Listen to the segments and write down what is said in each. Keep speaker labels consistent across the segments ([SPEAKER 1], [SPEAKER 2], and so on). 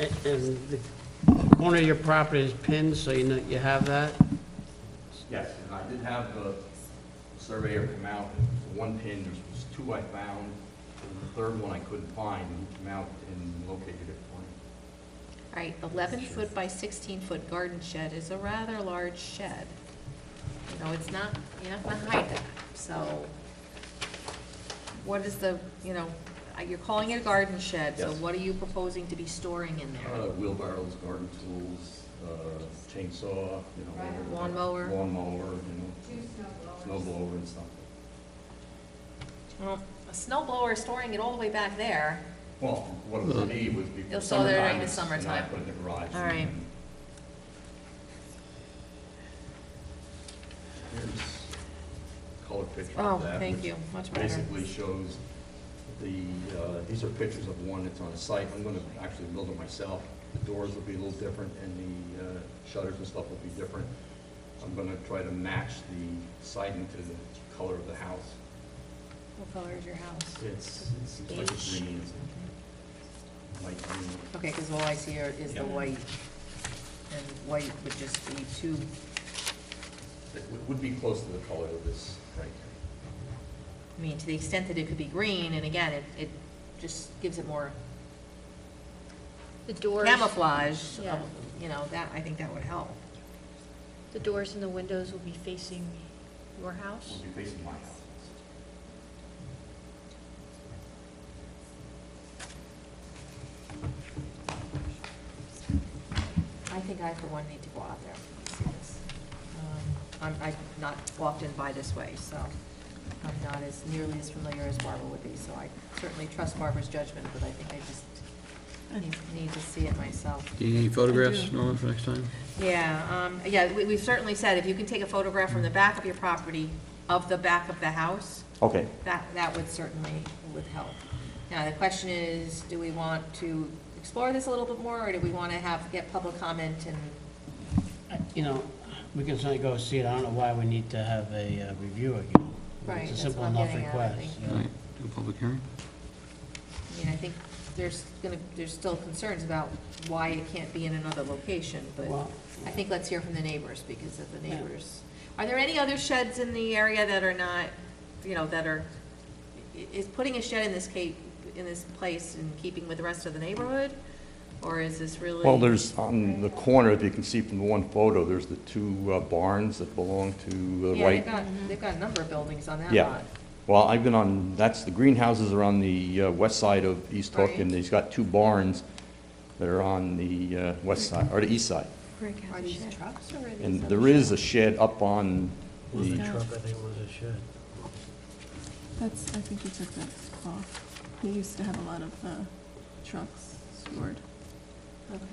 [SPEAKER 1] A- And the corner of your property is pinned, so you know, you have that?
[SPEAKER 2] Yes, and I did have the surveyor come out, the one pin, there was two I found, and the third one I couldn't find, and he came out and located it for me.
[SPEAKER 3] All right, eleven foot by sixteen foot garden shed is a rather large shed. You know, it's not, you're not gonna hide that, so what is the, you know, uh, you're calling it a garden shed, so
[SPEAKER 2] Yes.
[SPEAKER 3] what are you proposing to be storing in
[SPEAKER 2] Uh,
[SPEAKER 3] there?
[SPEAKER 2] Wheelbarrows, garden tools, uh, chainsaw, you know.
[SPEAKER 4] Right.
[SPEAKER 2] whatever.
[SPEAKER 3] Lawnmower.
[SPEAKER 2] Lawnmower, you
[SPEAKER 4] Two
[SPEAKER 2] know,
[SPEAKER 4] snow blowers.
[SPEAKER 2] snow blower and stuff.
[SPEAKER 3] Well, A snow blower is storing it all the way back there.
[SPEAKER 2] Well, what it would be would be for
[SPEAKER 3] You'll sell there
[SPEAKER 2] summertime,
[SPEAKER 3] during the
[SPEAKER 2] it's- and I
[SPEAKER 3] summertime.
[SPEAKER 2] put it in the garage.
[SPEAKER 3] All right.
[SPEAKER 2] and- Here's color picture
[SPEAKER 3] Oh,
[SPEAKER 2] of that.
[SPEAKER 3] thank
[SPEAKER 2] which
[SPEAKER 3] you, much better.
[SPEAKER 2] basically shows the, uh, these are pictures of one that's on the site. I'm going to actually build it myself. The doors will be a little different, and the uh, shutters and stuff will be different. I'm going to try to match the siding to the color of the house.
[SPEAKER 3] What color is your house?
[SPEAKER 2] It's, it's it's like
[SPEAKER 3] Beige.
[SPEAKER 2] a green, it's a light green.
[SPEAKER 5] Okay, because all I see here is the
[SPEAKER 2] Yeah.
[SPEAKER 5] white, and white would just be two,
[SPEAKER 2] It would- would be close to the color of this right here.
[SPEAKER 3] I mean, to the extent that it could be green, and again, it, it just gives it more
[SPEAKER 6] The doors,
[SPEAKER 3] camouflage, of-
[SPEAKER 6] Yeah.
[SPEAKER 3] you know, that, I think that would help.
[SPEAKER 6] the doors and the windows will be facing your house?
[SPEAKER 2] Would be facing my house.
[SPEAKER 3] I think I, for one, need to go out there and see this. Um, I'm, I've not walked in by this way, so I'm not as nearly as familiar as Barbara would be, so I certainly trust Barbara's judgment, but I think I just need- need to see it myself.
[SPEAKER 7] Do you need any photographs, Norman, for next time?
[SPEAKER 3] Yeah, um, yeah, we, we've certainly said, if you can take a photograph from the back of your property, of the back of the house,
[SPEAKER 2] Okay.
[SPEAKER 3] that, that would certainly, would help. Now, the question is, do we want to explore this a little bit more, or do we want to have, get public comment and,
[SPEAKER 1] I- You know, we can certainly go see it, I don't know why we need to have a uh, review again.
[SPEAKER 3] Right,
[SPEAKER 1] It's a
[SPEAKER 3] that's
[SPEAKER 1] simple
[SPEAKER 3] what I'm
[SPEAKER 1] enough
[SPEAKER 3] getting at, I
[SPEAKER 1] request.
[SPEAKER 3] think.
[SPEAKER 1] yeah.
[SPEAKER 7] Right, do a public hearing?
[SPEAKER 3] I mean, I think there's gonna, there's still concerns about why it can't be in another location, but
[SPEAKER 1] Well-
[SPEAKER 3] I think let's hear from the neighbors, because of the
[SPEAKER 1] Yeah.
[SPEAKER 3] neighbors. Are there any other sheds in the area that are not, you know, that are, i- is putting a shed in this cape, in this place in keeping with the rest of the neighborhood? Or is this really?
[SPEAKER 2] Well, there's, on the corner, if you can see from the one photo, there's the two uh, barns that belong to the
[SPEAKER 3] Yeah, they've
[SPEAKER 2] right.
[SPEAKER 3] got, they've got a number of buildings on that lot.
[SPEAKER 2] Yeah. Well, I've been on, that's, the greenhouses are on the uh, west side of East Hook,
[SPEAKER 3] Right.
[SPEAKER 2] and he's got two barns that are on the uh, west side, or the east side.
[SPEAKER 3] Are these trucks or are these?
[SPEAKER 2] And
[SPEAKER 3] other
[SPEAKER 2] there is a shed up on
[SPEAKER 1] Was a
[SPEAKER 2] the,
[SPEAKER 1] truck, I think it was a shed.
[SPEAKER 8] That's, I think you took that off. They used to have a lot of uh, trucks stored.
[SPEAKER 3] Okay.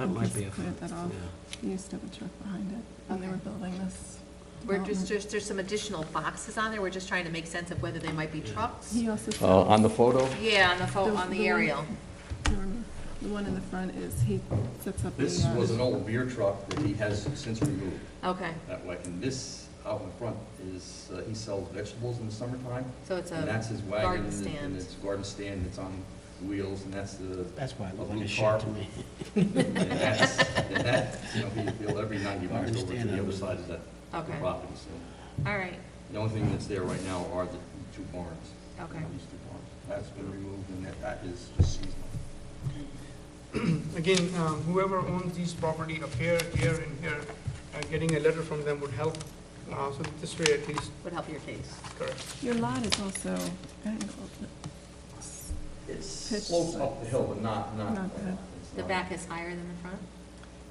[SPEAKER 1] That
[SPEAKER 8] I think you
[SPEAKER 1] might be a,
[SPEAKER 8] just Cleared that
[SPEAKER 1] yeah.
[SPEAKER 8] off. They used to have a truck behind it when they were
[SPEAKER 3] Okay.
[SPEAKER 8] building this.
[SPEAKER 3] We're just,
[SPEAKER 8] development.
[SPEAKER 3] there's, there's some additional boxes on there, we're just trying to make sense of whether they might be trucks.
[SPEAKER 8] He also
[SPEAKER 2] uh,
[SPEAKER 8] sells.
[SPEAKER 2] on the photo.
[SPEAKER 3] Yeah, on the phone,
[SPEAKER 8] The-
[SPEAKER 3] on the
[SPEAKER 8] the one-
[SPEAKER 3] aerial.
[SPEAKER 8] I remember. The one in the front is, he sets up the.
[SPEAKER 2] This
[SPEAKER 8] uh,
[SPEAKER 2] was an old beer truck that he has since removed
[SPEAKER 3] Okay,
[SPEAKER 2] that way. And this out in front is, uh, he sells vegetables in the summertime.
[SPEAKER 3] so it's
[SPEAKER 2] And that's
[SPEAKER 3] a
[SPEAKER 2] his wagon,
[SPEAKER 3] garden
[SPEAKER 2] and it- and
[SPEAKER 3] stand.
[SPEAKER 2] it's a garden stand, it's on wheels, and that's the,
[SPEAKER 1] That's why it looked like
[SPEAKER 2] Blue
[SPEAKER 1] a shed
[SPEAKER 2] car.
[SPEAKER 1] to me.
[SPEAKER 2] and that's, and that, you know, he- he'll every night he miles
[SPEAKER 1] Garden
[SPEAKER 2] over to
[SPEAKER 1] stand
[SPEAKER 2] the
[SPEAKER 1] on
[SPEAKER 2] other
[SPEAKER 1] the-
[SPEAKER 2] side of that
[SPEAKER 3] Okay.
[SPEAKER 2] property, so.
[SPEAKER 3] All right,
[SPEAKER 2] The only thing that's there right now are the two barns.
[SPEAKER 3] Okay.
[SPEAKER 2] These two barns. That's been removed, and that, that is just seasonal.
[SPEAKER 9] Again, um, whoever owns these property up here, here, and here, uh, getting a letter from them would help, uh, so this way at least,
[SPEAKER 3] would help your case.
[SPEAKER 9] correct.
[SPEAKER 8] Your lot is also angled. It's-
[SPEAKER 2] It's
[SPEAKER 8] Pitch.
[SPEAKER 2] slopes up the hill, but not, not.
[SPEAKER 8] Not bad.
[SPEAKER 2] it's
[SPEAKER 3] The
[SPEAKER 2] not-
[SPEAKER 3] back is higher than the front?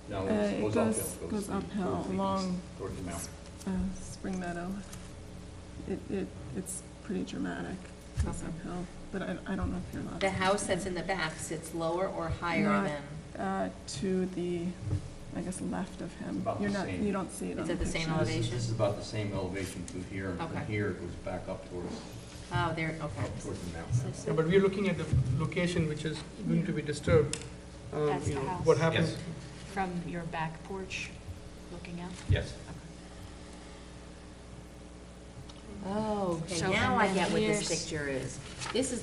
[SPEAKER 2] No,
[SPEAKER 8] Uh,
[SPEAKER 2] it
[SPEAKER 8] it
[SPEAKER 2] goes
[SPEAKER 8] goes-
[SPEAKER 2] uphill. It
[SPEAKER 8] goes
[SPEAKER 2] toward the
[SPEAKER 8] uphill
[SPEAKER 2] east,
[SPEAKER 8] along-
[SPEAKER 2] Toward the mountain.
[SPEAKER 8] uh, Spring Meadow. It, it, it's pretty dramatic. It's
[SPEAKER 3] Okay.
[SPEAKER 8] uphill, but I, I don't know if your lot.
[SPEAKER 3] The
[SPEAKER 8] is-
[SPEAKER 3] house that's in the back sits lower or higher
[SPEAKER 8] Not-
[SPEAKER 3] than,
[SPEAKER 8] uh, to the, I guess, left of him.
[SPEAKER 2] About the
[SPEAKER 8] You're not,
[SPEAKER 2] same.
[SPEAKER 8] you don't see it on
[SPEAKER 3] It's
[SPEAKER 8] the
[SPEAKER 3] at the same
[SPEAKER 8] picture.
[SPEAKER 2] So this is-
[SPEAKER 3] elevation?
[SPEAKER 2] This is about the same elevation to here, and from
[SPEAKER 3] Okay.
[SPEAKER 2] here it goes back up towards,
[SPEAKER 3] oh, there,
[SPEAKER 2] up
[SPEAKER 3] okay.
[SPEAKER 2] towards the mountain.
[SPEAKER 9] Yeah, But we're looking at the location which is going to be disturbed. Um,
[SPEAKER 6] That's
[SPEAKER 9] you
[SPEAKER 6] the
[SPEAKER 9] know,
[SPEAKER 6] house.
[SPEAKER 9] What happens?
[SPEAKER 6] From your back porch, looking out?
[SPEAKER 2] Yes.
[SPEAKER 3] Oh, okay,
[SPEAKER 6] So,
[SPEAKER 3] now
[SPEAKER 6] and
[SPEAKER 3] I
[SPEAKER 6] then
[SPEAKER 3] get what this
[SPEAKER 6] here's-
[SPEAKER 3] picture is. This is